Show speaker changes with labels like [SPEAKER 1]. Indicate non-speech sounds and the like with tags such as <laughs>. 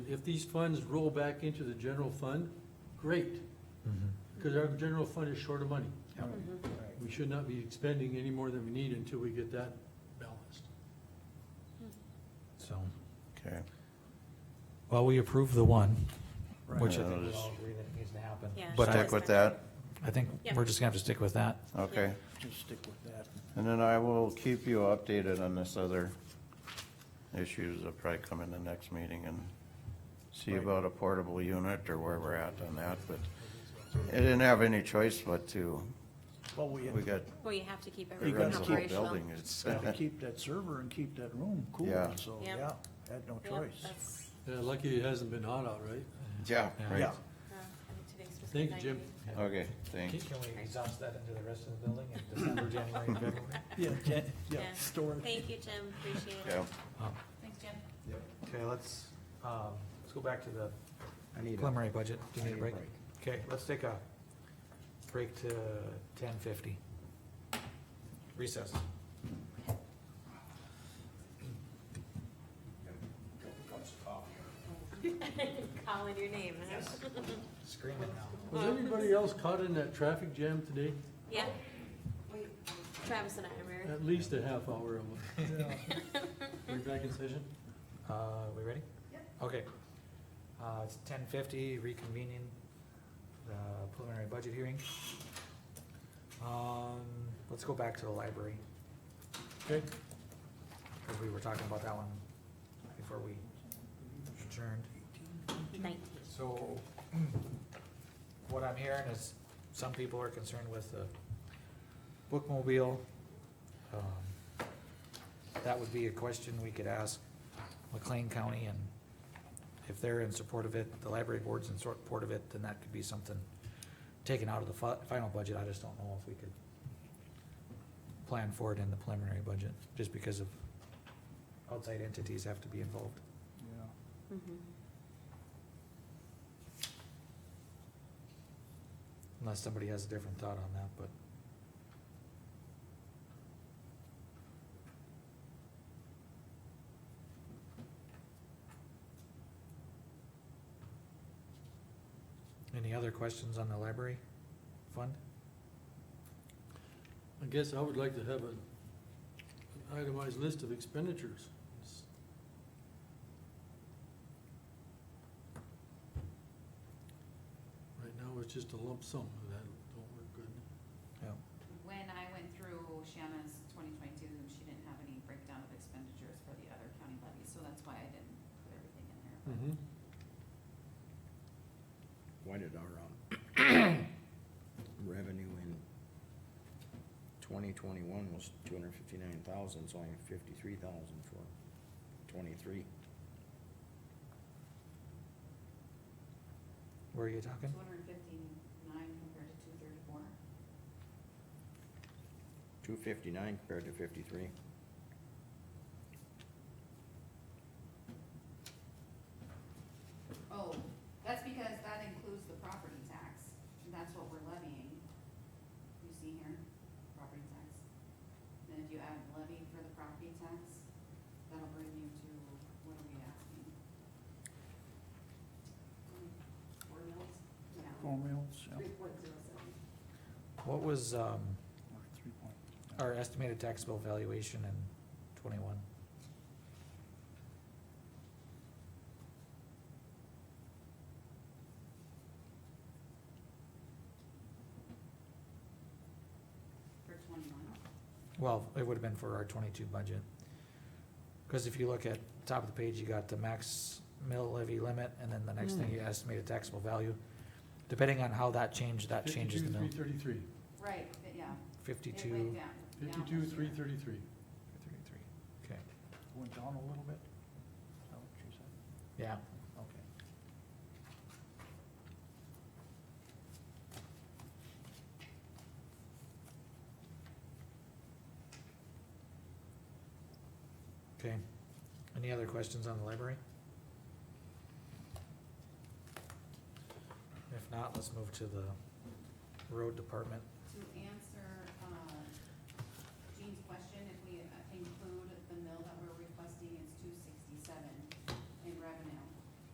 [SPEAKER 1] if these funds roll back into the general fund, great, because our general fund is short of money. We should not be expending any more than we need until we get that balanced.
[SPEAKER 2] So,
[SPEAKER 3] Okay.
[SPEAKER 2] well, we approve the one, which I think
[SPEAKER 3] Right.
[SPEAKER 2] we
[SPEAKER 3] Yeah,
[SPEAKER 2] all agree that needs to happen.
[SPEAKER 4] Yeah.
[SPEAKER 2] But I,
[SPEAKER 3] Stick with that,
[SPEAKER 2] I think
[SPEAKER 4] Yeah.
[SPEAKER 2] we're just gonna have to stick with that.
[SPEAKER 3] okay.
[SPEAKER 5] Just stick with that.
[SPEAKER 3] And then I will keep you updated on this other issues that'll probably come in the next meeting and see about a portable unit or where we're at on that, but I didn't have any choice but to,
[SPEAKER 5] Well, we
[SPEAKER 3] we got,
[SPEAKER 4] Well, you have to keep
[SPEAKER 3] it
[SPEAKER 5] You
[SPEAKER 4] everything
[SPEAKER 3] runs the whole
[SPEAKER 4] operational.
[SPEAKER 3] building, it's,
[SPEAKER 5] gotta keep that server and keep that room cool,
[SPEAKER 3] Yeah.
[SPEAKER 5] so,
[SPEAKER 4] Yeah.
[SPEAKER 5] yeah, had no
[SPEAKER 4] Yep,
[SPEAKER 5] choice.
[SPEAKER 4] that's,
[SPEAKER 1] Yeah, lucky it hasn't been hot out, right?
[SPEAKER 3] <laughs> yeah, right,
[SPEAKER 5] Yeah,
[SPEAKER 4] uh, I think today's supposed to be
[SPEAKER 1] Thank you, Jim.
[SPEAKER 4] 90.
[SPEAKER 3] okay,
[SPEAKER 2] Can
[SPEAKER 3] thanks.
[SPEAKER 2] we exhaust that into the rest of the building in December, January, and
[SPEAKER 4] <laughs>
[SPEAKER 2] February?
[SPEAKER 5] yeah, yeah, yeah,
[SPEAKER 4] Yeah.
[SPEAKER 5] storage.
[SPEAKER 4] Thank you, Jim, appreciate it.
[SPEAKER 3] Yeah,
[SPEAKER 2] Um,
[SPEAKER 4] Thanks, Jim.
[SPEAKER 2] Okay, let's, um, let's go back to the
[SPEAKER 6] I need a,
[SPEAKER 2] preliminary budget. Do you
[SPEAKER 6] I
[SPEAKER 2] need a break? Okay, let's take a break to ten fifty. Recess.
[SPEAKER 4] Calling your name, huh?
[SPEAKER 2] Screaming now.
[SPEAKER 1] Was anybody else caught in that traffic jam today?
[SPEAKER 4] Yeah. Travis and I are,
[SPEAKER 1] At least a half hour of it. We're back in session?
[SPEAKER 2] Uh, we ready? Okay. Uh, it's ten fifty, reconvening the preliminary budget hearing. Um, let's go back to the library,
[SPEAKER 1] Okay,
[SPEAKER 2] cause we were talking about that one before we adjourned.
[SPEAKER 4] nineteen.
[SPEAKER 2] So, what I'm hearing is some people are concerned with the bookmobile. Um, That would be a question we could ask McLean County and if they're in support of it, the library board's in support of it, then that could be something taken out of the fi- final budget. I just don't know if we could plan for it in the preliminary budget, just because of outside entities have to be involved.
[SPEAKER 5] Yeah.
[SPEAKER 4] Mm-hmm.
[SPEAKER 2] Unless somebody has a different thought on that, but. Any other questions on the library fund?
[SPEAKER 1] I guess I would like to have an itemized list of expenditures. Right now, it's just a lump sum, and that don't work good.
[SPEAKER 7] When I went through Shanna's twenty twenty-two, she didn't have any breakdown of expenditures for the other county levies, so that's why I didn't put everything in there. but-
[SPEAKER 6] why did our, um, revenue in twenty twenty-one was two hundred fifty-nine thousand, it's only fifty-three thousand for twenty-three.
[SPEAKER 2] Where are you talking?
[SPEAKER 7] Two hundred and fifty-nine compared to two thirty-four.
[SPEAKER 6] Two fifty-nine compared to fifty-three.
[SPEAKER 7] Oh, that's because that includes the property tax, and that's what we're levying. You see here, property tax. Then if you add levy for the property tax, that'll bring you to, what are we asking? Four mils? Yeah.
[SPEAKER 5] Four meals, yeah,
[SPEAKER 7] Three point zero seven.
[SPEAKER 2] What was, um,
[SPEAKER 5] or three point.
[SPEAKER 2] our estimated taxable valuation in twenty-one?
[SPEAKER 7] For twenty-one?
[SPEAKER 2] Well, it would have been for our twenty-two budget. Cause if you look at top of the page, you got the max mill levy limit, and then the next thing you estimated taxable value. Depending on how that changed, that changes the mill,
[SPEAKER 1] Fifty-two, three thirty-three.
[SPEAKER 7] Right, but yeah. It went
[SPEAKER 2] fifty-two,
[SPEAKER 7] down. down
[SPEAKER 1] Fifty-two,
[SPEAKER 7] this
[SPEAKER 1] three
[SPEAKER 7] year.
[SPEAKER 1] thirty-three.
[SPEAKER 2] thirty-three, okay,
[SPEAKER 5] Went down a little bit, is that what you said?
[SPEAKER 2] yeah.
[SPEAKER 5] Okay.
[SPEAKER 2] Okay, any other questions on the library? If not, let's move to the road department
[SPEAKER 7] uh,